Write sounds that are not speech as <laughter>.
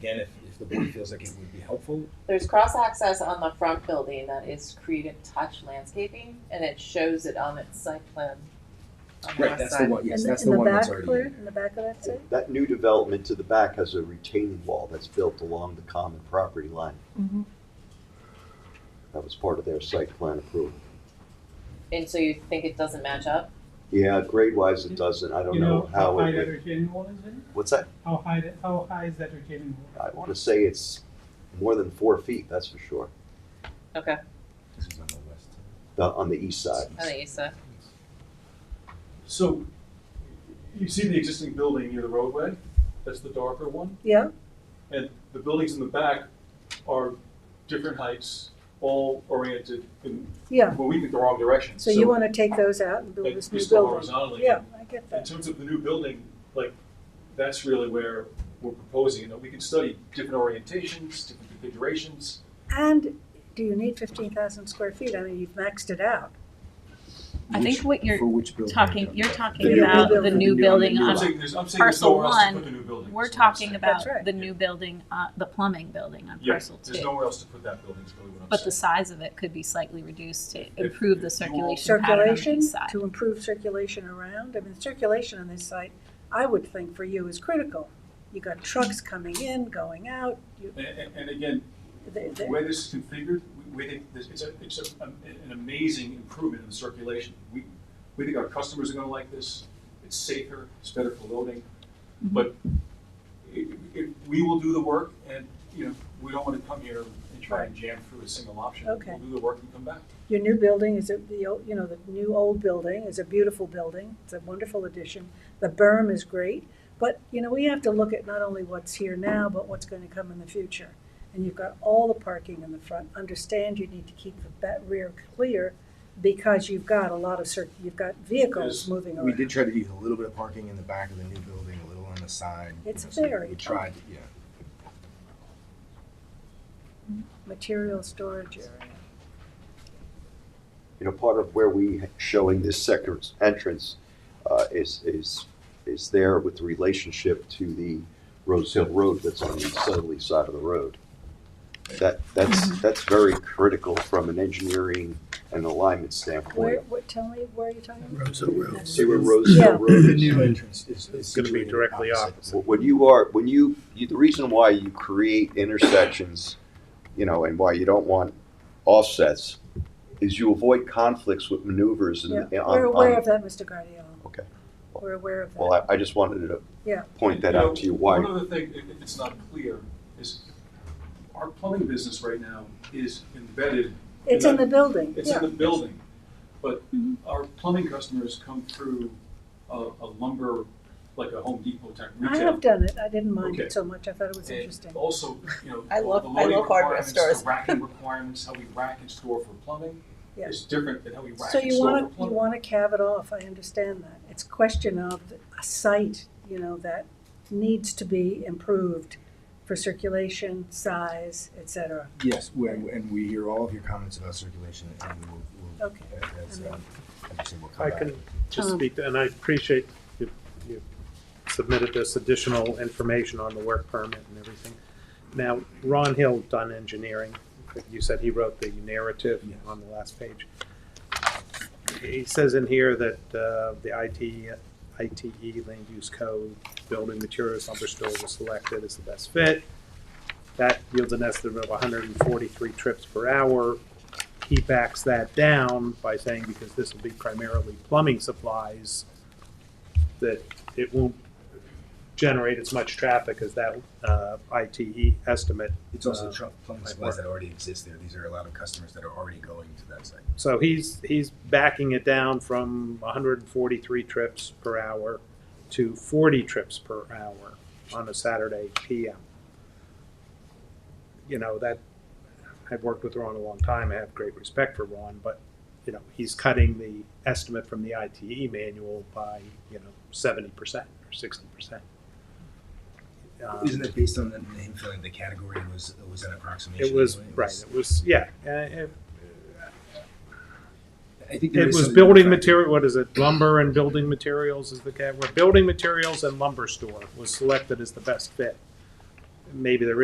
Again, if, if the board feels like it would be helpful, There's cross access on the front building that is Creative Touch Landscaping, and it shows it on its site plan. on the right, west that's the side. one, yes, In that's in the one that's back, already Claire, in. In the back of that site? That new development to the back has a retaining wall that's built along the common property line. Mhm. That was part of their site plan approval. And so you think it doesn't match up? Yeah, grade wise it doesn't, I don't You know how high it that would, retaining wall is in? what's that? How high, that- how high is that retaining wall? I wanna say it's more than four feet, that's for sure, Okay, This is on the west. the- on the east side. I think you said. So, you see the existing building near the roadway? That's the darker one. Yeah, And the buildings in the back are different heights, all oriented in, yeah. moving in the wrong direction. So you want to take those out and build like, this we new still building? horizontally. Yeah, I get In that. terms of the new building, like, that's really where we're proposing, that we can study different orientations, different configurations. And do you need fifteen thousand square feet? I mean, you've maxed it out. I think what you're For which building? talking, you're The talking new about the building. new building I'm on, saying there's, I'm saying there's Parcel nowhere else to one, put the new building. we're is what I'm talking saying. about That's right. the new building, uh, the plumbing building on Yeah, parcel there's two. nowhere else to put that building, is really what I'm saying. But the size of it could be slightly reduced to if improve you the want- circulation pattern on the Circulation, east side. to improve circulation around, I mean, circulation on this site, I would think for you is critical. You got trucks coming in, going out, you, And- And, and again, they, the they, way this is configured, we- we think this, it's a, it's a, um, an amazing improvement in the circulation. We, we think our customers are gonna like this, it's safer, it's better for loading, Mm-hmm. but it, it, we will do the work and, you know, we don't wanna come here and try and jam through a single option. Okay. We'll do the work and come back. Your new building is, a the, old- you know, the new old building is a beautiful building. It's a wonderful addition. The berm is great, but, you know, we have to look at not only what's here now, but what's going to come in the future. And you've got all the parking in the front. Understand you need to keep the ba- rear clear because you've got a lot of cir, you've got vehicles Yes, moving We around. did try to use a little bit of parking in the back of the new building, a little on the side. you It's know, so we- very We tried, yeah. Material storage area. you know, part of where we showing this second entrance uh, is, is, is there with the relationship to the Rose Hill Road that's on the southerly side of the road. That, that's, Mm-hmm. that's very critical from an engineering and alignment Where, standpoint. what, tell me, where are you talking about? Roads and roads. See where Rose Hill Yeah. Road The is? new entrance is, is gonna be situated directly opposite. opposite. When you are, when you, you- the reason why you create intersections, you know, and why you don't want offsets is you avoid conflicts with maneuvers and. Yeah, on- We're aware on- of that, Mr. Guardiola. Okay. We're aware of that. Well, I, I just wanted to Yeah. point that You know, out to you, why One other thing, if, if it's not clear, is our plumbing business right now is embedded It's in the building, It's yeah. Mm-hmm. in the building, but Mhm. our plumbing customers come through a, a lumber, like a Home Depot type I retail. have done it. I didn't mind Okay. it so much. I thought it was interesting. And also, <laughs> you know, I all the love- I love loading hardware requirements, stores. the racking requirements, how we rack and store for plumbing Yeah. is different than how we rack So and you store for want to, you plumbing. want to carve it off. I understand that. It's a question of a site, you know, that needs to be improved for circulation, size, et cetera. Yes, we- and we hear all of your comments about circulation and we will, we'll, Okay. as, um, as you said, we'll come I back. can just Tom. speak, to- and I appreciate you, you submitted this additional information on the work permit and everything. Now, Ron Hill done engineering, you said he wrote the narrative Yes. on the last page. He says in here that, uh, the IT, ITE E, land use code, building materials lumber store was selected as the best fit. That yields an estimate of hundred and forty-three trips per hour, he backs that down by saying, because this will be primarily plumbing supplies, that it won't generate as much traffic as that uh, ITE estimate. It's also Uh, tru- plumbing my supplies work. that already exist there. These are a lot of customers that are already going to that site. So he's, he's backing it down from 143 trips per hour to 40 trips per hour on a Saturday PM. You know, that, I've worked with Ron a long time, I have great respect for Ron, but, you know, he's cutting the estimate from the ITE manual by, you know, 70% or 60%. Um, Isn't that based on the, him feeling the category was, was an approximation? It was, anyway? It right, was- it was, yeah, uh, it I think there It is was something building about- material, what is it, lumber and building materials is the category, building materials and lumber store was selected as the best fit. maybe there